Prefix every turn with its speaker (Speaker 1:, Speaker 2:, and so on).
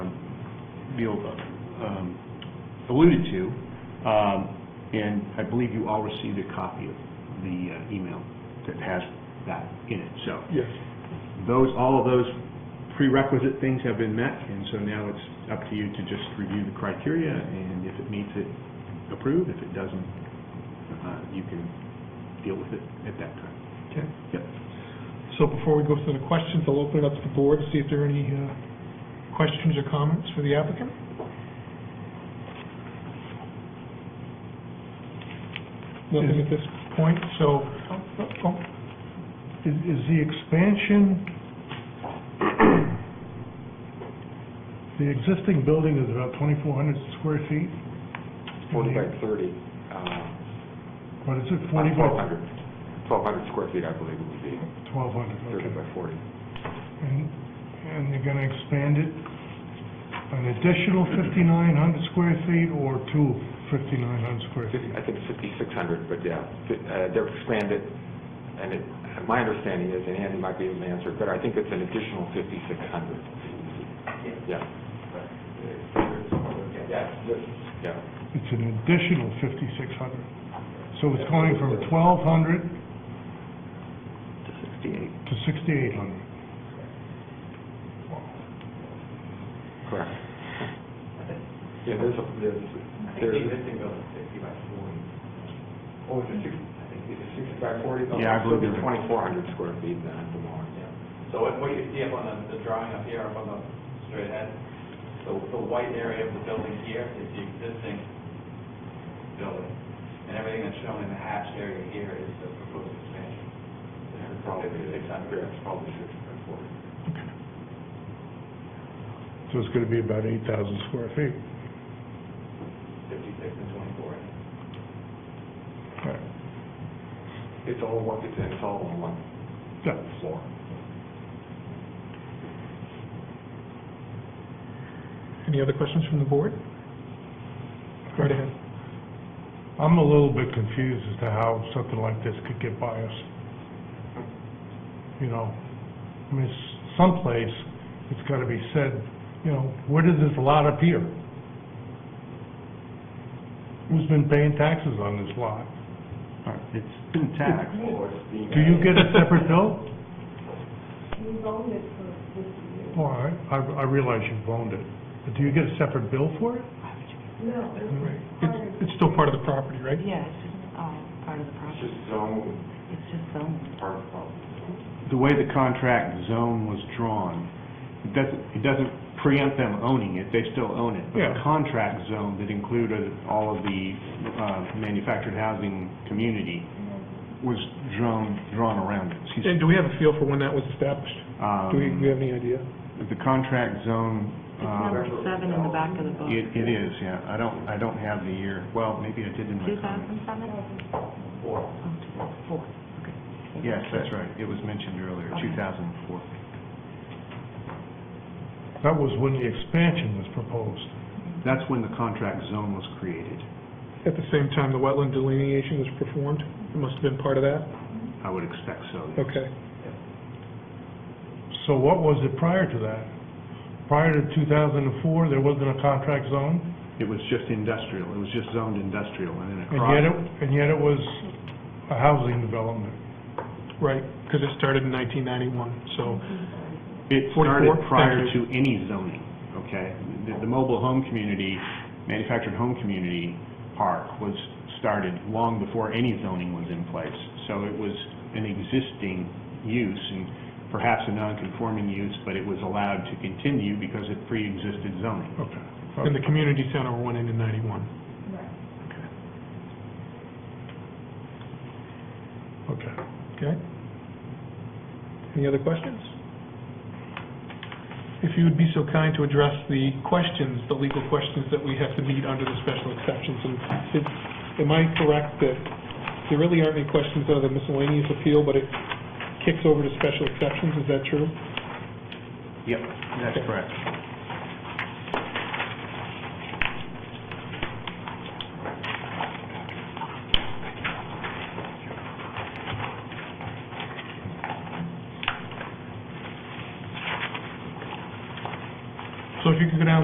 Speaker 1: Beal um, alluded to, um, and I believe you all received a copy of the uh, email that has that in it, so.
Speaker 2: Yes.
Speaker 1: Those, all of those prerequisite things have been met, and so now it's up to you to just review the criteria, and if it meets it, approve, if it doesn't, uh, you can deal with it at that time.
Speaker 2: Okay.
Speaker 1: Yep.
Speaker 2: So before we go through the questions, I'll open it up to the board, see if there are any uh, questions or comments for the applicant. Nothing at this point, so, oh, oh,
Speaker 3: Is, is the expansion, the existing building is about twenty-four hundred square feet,
Speaker 4: Forty by thirty. uh,
Speaker 3: what is it, forty by?
Speaker 4: 1,200 square feet, I believe it would be,
Speaker 3: Twelve hundred,
Speaker 4: 30
Speaker 3: okay.
Speaker 4: by 40.
Speaker 3: And, and you're gonna expand it an additional fifty-nine hundred square feet or two fifty-nine hundred square feet?
Speaker 4: Fif- I think 5,600, but yeah, fi- uh, they're expanded, and it, my understanding is, and Andy might be able to answer, but I think it's an additional 5,600. Yeah. Yeah.
Speaker 3: It's an additional fifty-six hundred. So it's going from twelve hundred
Speaker 4: To 68.
Speaker 3: to sixty-eight hundred.
Speaker 4: Correct. Yeah, there's, a- there's, there's, oh, is it 60, I think it's 60 by 40?
Speaker 1: Yeah, I believe it
Speaker 4: it's
Speaker 1: is.
Speaker 4: 2,400 square feet then at the moment.
Speaker 5: So what, what you see up on the, the drawing up here, up on the straight ahead, the, the white area of the building here is the existing building. And everything that's shown in the hatched area here is the proposed expansion. It's probably six hundred, it's probably six hundred forty.
Speaker 3: So it's gonna be about eight thousand square feet.
Speaker 5: Fifty-six and twenty-four.
Speaker 4: It's all one, it's it's all on one
Speaker 3: Yeah.
Speaker 4: floor.
Speaker 2: any other questions from the board? Go right ahead.
Speaker 3: I'm a little bit confused as to how something like this could get by us. You know, I mean, s- someplace, it's gotta be said, you know, where does this lot appear? Who's been paying taxes on this lot?
Speaker 1: All right, it's been taxed.
Speaker 3: Do you get a separate bill?
Speaker 6: We've owned it for fifty years.
Speaker 3: All right, I, I realize you've owned it, but do you get a separate bill for it?
Speaker 6: No, it was part
Speaker 2: It's-
Speaker 6: of-
Speaker 2: It's still part of the property, right?
Speaker 7: Yeah, it's just, uh, part of the
Speaker 4: It's
Speaker 7: process.
Speaker 4: just zone,
Speaker 7: It's just zoned.
Speaker 4: part of the problem.
Speaker 1: the way the contract zone was drawn, it doesn't, it doesn't preempt them owning it, they still own it. But the
Speaker 3: Yeah.
Speaker 1: contract zone that included all of the uh, manufactured housing community was drawn, drawn around it. Excuse me.
Speaker 2: And do we have a feel for when that was established? Do we, do
Speaker 1: Um,
Speaker 2: we have any idea?
Speaker 1: The contract zone,
Speaker 7: It's number
Speaker 1: um,
Speaker 7: seven in the back of the book.
Speaker 1: it it is, yeah, I don't, I don't have the year, well, maybe I did in my
Speaker 7: Two
Speaker 1: comments.
Speaker 7: thousand seven? Oh, Four. Four, okay.
Speaker 1: Yes, that's right, it was mentioned earlier,
Speaker 7: Okay.
Speaker 1: 2004.
Speaker 3: That was when the expansion was proposed.
Speaker 1: That's when the contract zone was created,
Speaker 2: At the same time, the wetland delineation was performed? It must have been part of that?
Speaker 1: I would expect so. yes.
Speaker 2: Okay.
Speaker 3: So what was it prior to that? Prior to 2004, there wasn't a contract zone?
Speaker 1: It was just industrial, it was just zoned industrial, and then
Speaker 3: And yet,
Speaker 1: across,
Speaker 3: it and yet it was a housing development.
Speaker 2: Right, because it started in 1991, so,
Speaker 1: it started
Speaker 2: 44? Thank
Speaker 1: prior to
Speaker 2: you.
Speaker 1: any zoning, okay? The, the mobile home community, manufactured home community park was started long before any zoning was in place. So it was an existing use and perhaps a non-conforming use, but it was allowed to continue because it pre-existed zoning.
Speaker 3: Okay.
Speaker 2: and the community center went in in 91.
Speaker 6: right.
Speaker 3: Okay.
Speaker 2: Okay? Any other questions? If you would be so kind to address the questions, the legal questions that we have to meet under the special exceptions, and it- am I correct that there really aren't any questions under the miscellaneous appeal, but it kicks over to special exceptions, is that true?
Speaker 1: Yep, that's
Speaker 2: Okay.
Speaker 1: correct.
Speaker 2: So if you could go down